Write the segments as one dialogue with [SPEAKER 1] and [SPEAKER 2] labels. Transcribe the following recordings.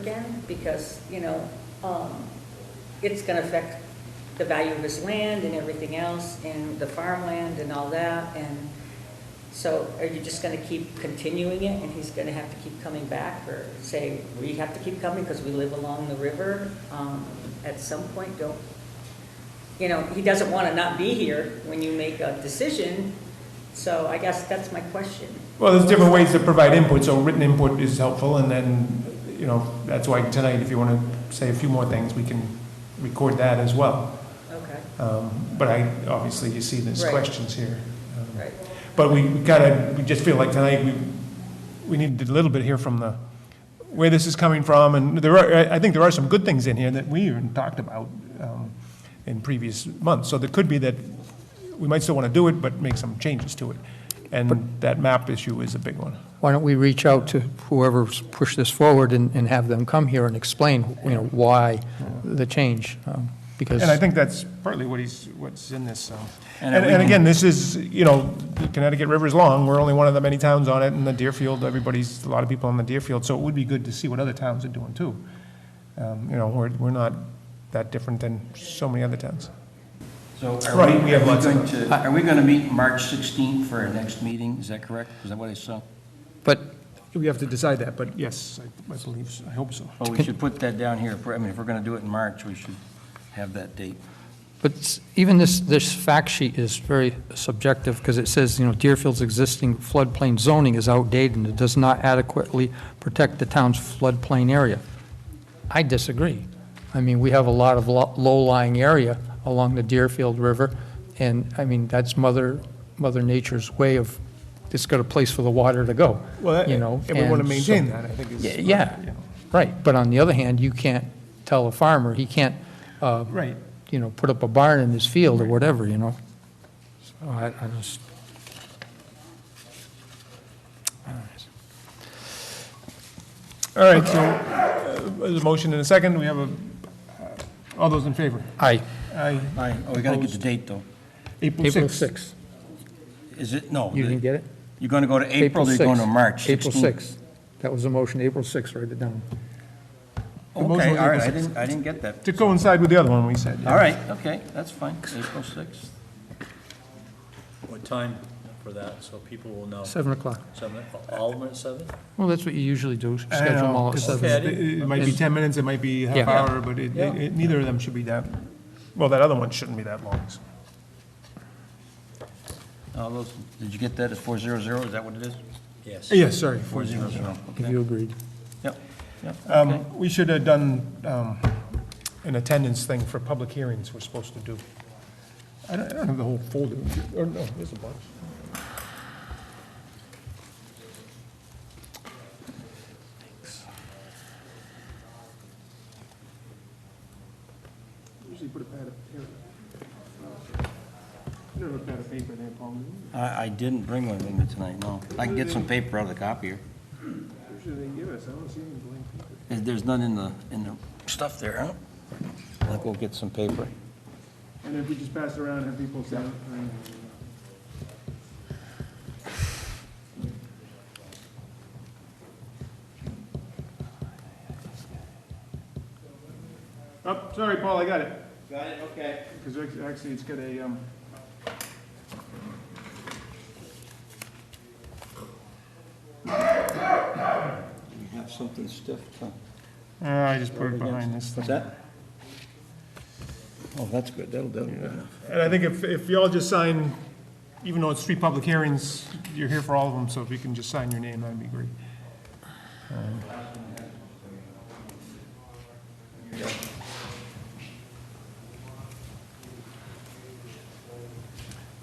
[SPEAKER 1] again, because, you know, um, it's going to affect the value of his land and everything else, and the farmland and all that, and so are you just going to keep continuing it, and he's going to have to keep coming back, or say, we have to keep coming because we live along the river? Um, At some point, don't, you know, he doesn't want to not be here when you make a decision, so I guess that's my question.
[SPEAKER 2] Well, there's different ways to provide input, so written input is helpful, and then, you know, that's why tonight, if you want to say a few more things, we can record that as well.
[SPEAKER 1] Okay,
[SPEAKER 2] Um, But I, obviously, you see there's
[SPEAKER 1] Right.
[SPEAKER 2] questions here. Um,
[SPEAKER 1] right.
[SPEAKER 2] But we gotta, we just feel like tonight, we, we need a little bit here from the, where this is coming from, and there are, I- I think there are some good things in here that we even talked about um, in previous months. So there could be that, we might still want to do it, but make some changes to it. And that map issue is a big one.
[SPEAKER 3] Why don't we reach out to whoever's pushed this forward and, and have them come here and explain, you know, why the change? um, Because,
[SPEAKER 2] And I think that's partly what he's, what's in this, so.
[SPEAKER 4] And
[SPEAKER 2] And,
[SPEAKER 4] we
[SPEAKER 2] and
[SPEAKER 4] can-
[SPEAKER 2] again, this is, you know, the Connecticut River's long, we're only one of the many towns on it, and the Deerfield, everybody's, a lot of people on the Deerfield, so it would be good to see what other towns are doing too. Um, you know, we're, we're not that different than so many other towns.
[SPEAKER 4] So are
[SPEAKER 2] Right,
[SPEAKER 4] we,
[SPEAKER 2] we have
[SPEAKER 4] are we
[SPEAKER 2] lots of
[SPEAKER 4] going to, are we going to meet March 16th for our next meeting? Is that correct? Is that what I saw?
[SPEAKER 3] but
[SPEAKER 2] We have to decide that, but yes, I, I believe, so. I hope so.
[SPEAKER 4] Well, Oh, we should put that down here. If we're- I mean, if we're going to do it in March, we should have that date.
[SPEAKER 3] But s- even this, this fact sheet is very subjective, because it says, you know, Deerfield's existing floodplain zoning is outdated and it does not adequately protect the town's floodplain area. I disagree. I mean, we have a lot of lo- low-lying area along the Deerfield River, and, I mean, that's mother, mother nature's way of, it's got a place for the water to go,
[SPEAKER 2] Well,
[SPEAKER 3] you know?
[SPEAKER 2] and we want to
[SPEAKER 3] so-
[SPEAKER 2] maintain that, I think is.
[SPEAKER 3] Yeah, yeah, right. But on the other hand, you can't tell a farmer, he can't, uh,
[SPEAKER 2] Right.
[SPEAKER 3] you know, put up a barn in his field or whatever, you know? So Oh, I, I just.
[SPEAKER 2] All right, so, uh, there's a motion and a second, we have a, uh, all those in favor?
[SPEAKER 3] Aye.
[SPEAKER 2] Aye.
[SPEAKER 4] All right, oh, we got to get the date, though.
[SPEAKER 2] April
[SPEAKER 3] April
[SPEAKER 2] sixth.
[SPEAKER 3] 6th.
[SPEAKER 4] Is it, no.
[SPEAKER 3] You
[SPEAKER 4] the-
[SPEAKER 3] didn't get it?
[SPEAKER 4] You're going to go to April, or you're going to
[SPEAKER 3] 6th.
[SPEAKER 4] March 16th?
[SPEAKER 3] April 6th. That was the motion, April 6th, write it down.
[SPEAKER 2] The motion
[SPEAKER 4] Okay,
[SPEAKER 2] was
[SPEAKER 4] all
[SPEAKER 2] April
[SPEAKER 4] right, I didn't, I didn't get that.
[SPEAKER 2] To coincide with the other one we said. yeah.
[SPEAKER 4] All right, okay, that's fine, April 6th.
[SPEAKER 5] What time for that, so people will know?
[SPEAKER 3] 7 o'clock.
[SPEAKER 5] Seven, Alderman at seven?
[SPEAKER 3] Well, that's what you usually do,
[SPEAKER 2] I don't
[SPEAKER 3] schedule them
[SPEAKER 2] know,
[SPEAKER 3] all at
[SPEAKER 2] 'cause
[SPEAKER 3] 7.
[SPEAKER 5] Okay.
[SPEAKER 2] It it might be 10 minutes, it might be half
[SPEAKER 3] Yeah.
[SPEAKER 2] hour, but it, it- it- neither of them should be that, well, that other one shouldn't be that long. so.
[SPEAKER 4] All those, did you get that at 400? Is that what it is?
[SPEAKER 5] Yes.
[SPEAKER 2] Yes, sorry.
[SPEAKER 4] 400,
[SPEAKER 3] If
[SPEAKER 4] okay.
[SPEAKER 3] you agreed.
[SPEAKER 4] Yep, yep, okay.
[SPEAKER 2] Um, We should have done um, an attendance thing for public hearings we're supposed to do. I don't, I don't have the whole folder, or no, there's a bunch. Usually put a pad of paper. You don't have a pad of paper there, Paul, do you?
[SPEAKER 4] I, I didn't bring one with me tonight, no. I can get some paper out of the copier.
[SPEAKER 2] usually they give us, I don't see any blank paper.
[SPEAKER 4] There- There's none in the, in the stuff there, huh? I think we'll get some paper.
[SPEAKER 2] And if we just pass it around, have people say. Oh, sorry, Paul, I got it. Got it, okay. Because actually, it's got a, um.
[SPEAKER 4] We have something stiff, huh?
[SPEAKER 2] Uh, I just put it behind this thing.
[SPEAKER 4] What's that? Oh, that's good, that'll, that'll be good enough.
[SPEAKER 2] And I think if, if y'all just sign, even though it's three public hearings, you're here for all of them, so if you can just sign your name, that'd be great. Um,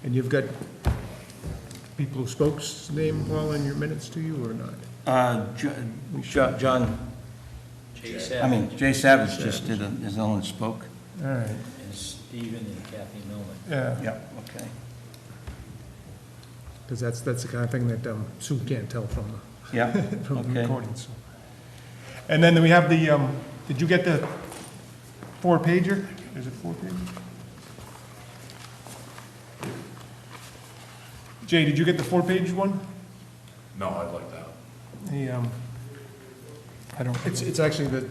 [SPEAKER 2] And you've got people who spoke's name, Paul, in your minutes to you or not?
[SPEAKER 4] Uh, Jo- Jo- John,
[SPEAKER 5] Jay
[SPEAKER 4] I
[SPEAKER 5] Savage,
[SPEAKER 4] mean, Jay Savage just did, a- is the one that spoke.
[SPEAKER 2] All right,
[SPEAKER 5] and Stephen and Kathy Millman.
[SPEAKER 2] yeah,
[SPEAKER 4] Yeah. Okay.
[SPEAKER 2] because that's, that's the kind of thing that um, Sue can't tell from the
[SPEAKER 4] Yeah,
[SPEAKER 2] from the
[SPEAKER 4] okay.
[SPEAKER 2] recordings. And then we have the, um, did you get the four pager? Is it four pager? Jay, did you get the four page one?
[SPEAKER 6] No, I'd like that.
[SPEAKER 2] The, um,
[SPEAKER 7] I don't.
[SPEAKER 3] It's, it's actually the